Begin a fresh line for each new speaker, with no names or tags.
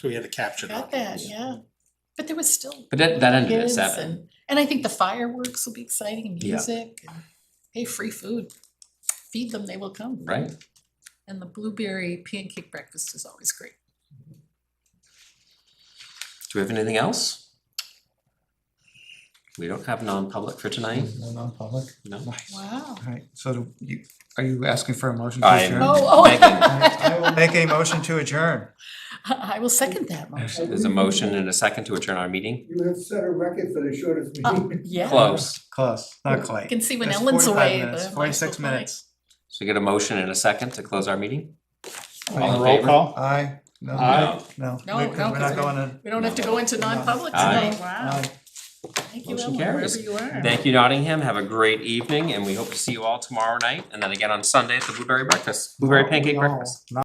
So we had to capture that.
Got that, yeah. But there was still
But that, that ended at
kids
seven.
and, and I think the fireworks will be exciting, and
Yeah.
music, and hey, free food. Feed them, they will come.
Right?
And the blueberry pancake breakfast is always great.
Do we have anything else? We don't have non-public for tonight,
No non-public?
no?
Nice. All
Wow.
right, so do you, are you asking for a motion to
I'm-
adjourn?
Oh, oh.
I
Megan.
I will make a motion to adjourn.
I will second that motion.
There's a motion and a second to adjourn our meeting.
You have set a record for the shortest
Oh,
meeting.
yeah.
Close.
Close, not
You
quite.
can see when
That's
Ellen's
45
away.
minutes,
the
Forty-six
lights will
minutes.
So we get a motion and a second to close our meeting? All in
Roll
favor?
call?
Aye, no,
Aye.
no, no,
No,
we're
no,
we're
'cause
not going to.
fly. We don't have to go into non-public
Aye.
tonight. Wow.
Aye.
Thank you,
Motion
Ellen,
carries.
wherever you are.
Thank you Nottingham, have a great evening and we hope to see you all tomorrow night and then again on Sunday at the Blueberry Breakfast, Blueberry Pancake
No,
Breakfast.
no.